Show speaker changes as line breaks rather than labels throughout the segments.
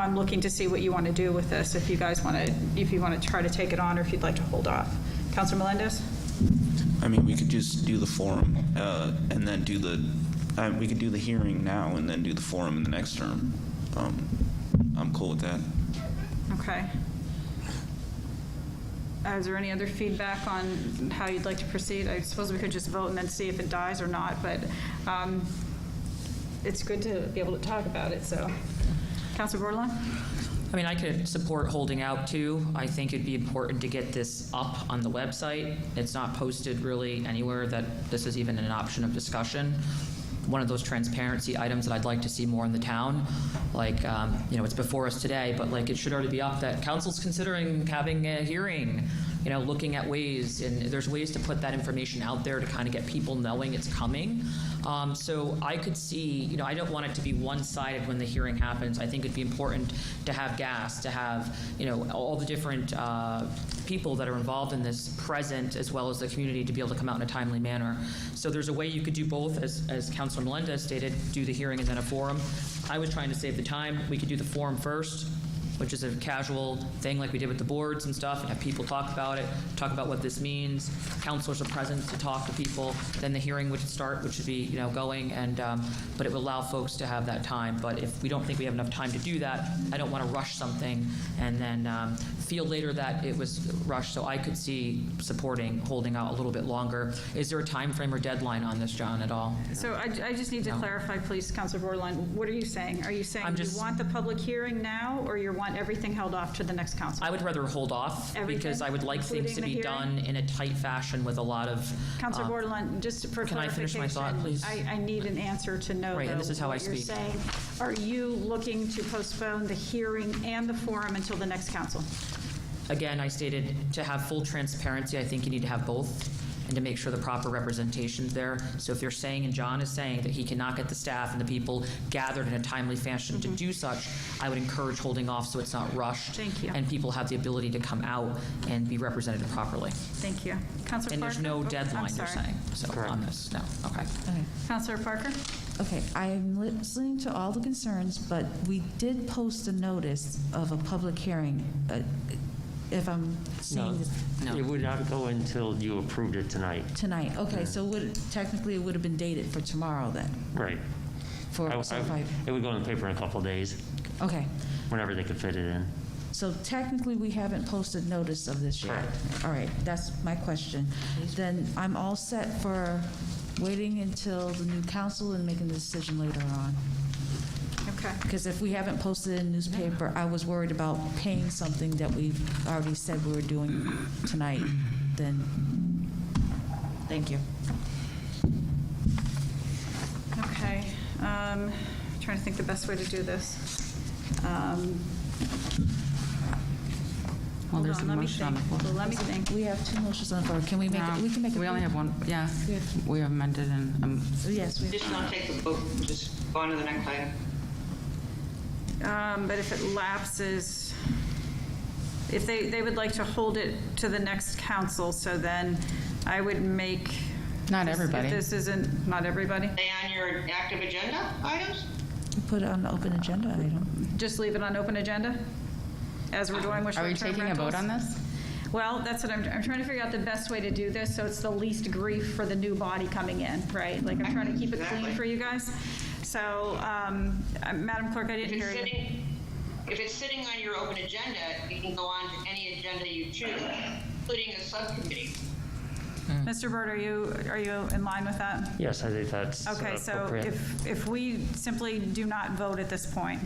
I'm looking to see what you want to do with this, if you guys want to, if you want to try to take it on or if you'd like to hold off. Counselor Melendez?
I mean, we could just do the forum, uh, and then do the, uh, we could do the hearing now and then do the forum in the next term. Um, I'm cool with that.
Okay. Uh, Is there any other feedback on how you'd like to proceed? I suppose we could just vote and then see if it dies or not, but um, it's good to be able to talk about it, so. Counselor Borderline?
I mean, I could support holding out too. I think it'd be important to get this up on the website. It's not posted really anywhere that this is even an option of discussion. One of those transparency items that I'd like to see more in the town, like, um, you know, it's before us today, but like, it should already be up that council's considering having a hearing, you know, looking at ways, and there's ways to put that information out there to kind of get people knowing it's coming. Um, So I could see, you know, I don't want it to be one-sided when the hearing happens. I think it'd be important to have gas, to have, you know, all the different uh, people that are involved in this present, as well as the community, to be able to come out in a timely manner. So there's a way you could do both, as, as Councilor Melendez stated, do the hearing and then a forum. I was trying to save the time. We could do the forum first, which is a casual thing like we did with the boards and stuff, and have people talk about it, talk about what this means. Counselors are present to talk to people. Then the hearing would start, which would be, you know, going, and, um, but it would allow folks to have that time. But if we don't think we have enough time to do that, I don't want to rush something and then um, feel later that it was rushed. So I could see supporting holding out a little bit longer. Is there a time frame or deadline on this, John, at all?
So I I just need to clarify, please, Counselor Borderline, what are you saying? Are you saying
I'm
you
just-
want the public hearing now, or you want everything held off to the next council?
I would rather hold off because
Everything,
I would like things to
including the
be
hearing?
done in a tight fashion with a lot of.
Counselor
um,
Borderline, just for
Can I finish my thought,
clarification,
please?
I, I need an answer to know,
Right, and
though,
this is how I
what you're
speak.
saying. Are you looking to postpone the hearing and the forum until the next council?
Again, I stated, to have full transparency, I think you need to have both, and to make sure the proper representation's there. So if you're saying, and John is saying, that he cannot get the staff and the people gathered in a timely fashion to
Mm-hmm.
do such, I would encourage holding off so it's not rushed.
Thank you.
And people have the ability to come out and be represented properly.
Thank you. Counselor
And
Parker?
there's no
Oh, I'm
deadline, you're
sorry.
saying, so on this, no, okay.
Okay.
Counselor Parker?
Okay, I'm listening to all the concerns, but we did post a notice of a public hearing, uh, if I'm
No,
seeing this
No.
It would not go until you approved it tonight.
tonight. Okay, so would, technically, it would have been dated for tomorrow then,
Right. I-
for, so if
I-
I,
It would go in the paper in a couple of days,
okay.
whenever they could fit it in.
So technically, we haven't posted notice of this yet. All right, that's my question. Then I'm all set for waiting until the new council and making the decision later on.
Okay.
Because if we haven't posted in newspaper, I was worried about paying something that we've already said we were doing tonight, then, thank you.
Okay. Um, Trying to think the best way to do this. Um,
Well,
hold
there's
on,
a
let me
motion on the
think.
floor.
Well, Let me think.
We have two motions on the floor, can we make, it? we can make. it-
We only have one, yeah.
Yeah.
We have amended and, um,
Yes, we have.
Just not take the vote, just go on to the next item.
Um, But if it lapses, if they, they would like to hold it to the next council, so then I would make.
Not
this- if
everybody.
this isn't, not everybody,
Stay on your active agenda items?
Put it on the open agenda item.
just leave it on open agenda, as we're doing with
are we
short-term
taking a vote
rentals?
on this?
Well, that's what I'm, I'm trying to figure out the best way to do this, so it's the least grief for the new body coming in, right? Like, I'm trying to keep it clean
Exactly.
for you guys. So, um, uh, Madam Clerk, I
If
didn't hear
it's
you.
sitting, if it's sitting on your open agenda, you can go on to any agenda you choose, including a subcommittee.
Hmm.
Mr. Burt, are you, are you in line with that?
Yes, I think that's uh,
Okay, so
appropriate.
if, if we simply do not vote at this point,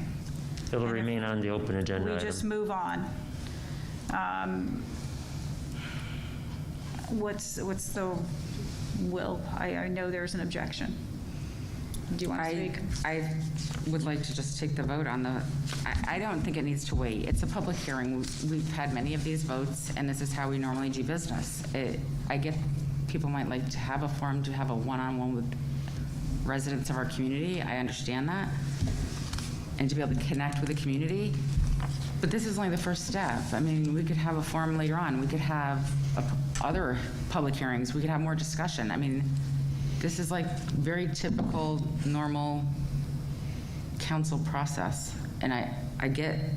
It'll remain on the open agenda
we
item.
just move on. um, What's, what's the will? I, I know there's an objection. Do you want to
I,
speak?
I would like to just take the vote on the, I, I don't think it needs to wait. It's a public hearing. We- We've had many of these votes, and this is how we normally do business. It, I get people might like to have a forum, to have a one-on-one with residents of our community. I understand that. And to be able to connect with the community. But this is only the first step. I mean, we could have a forum later on. We could have a p- other public hearings. We could have more discussion. I mean, this is like very typical, normal council process. And I, I I get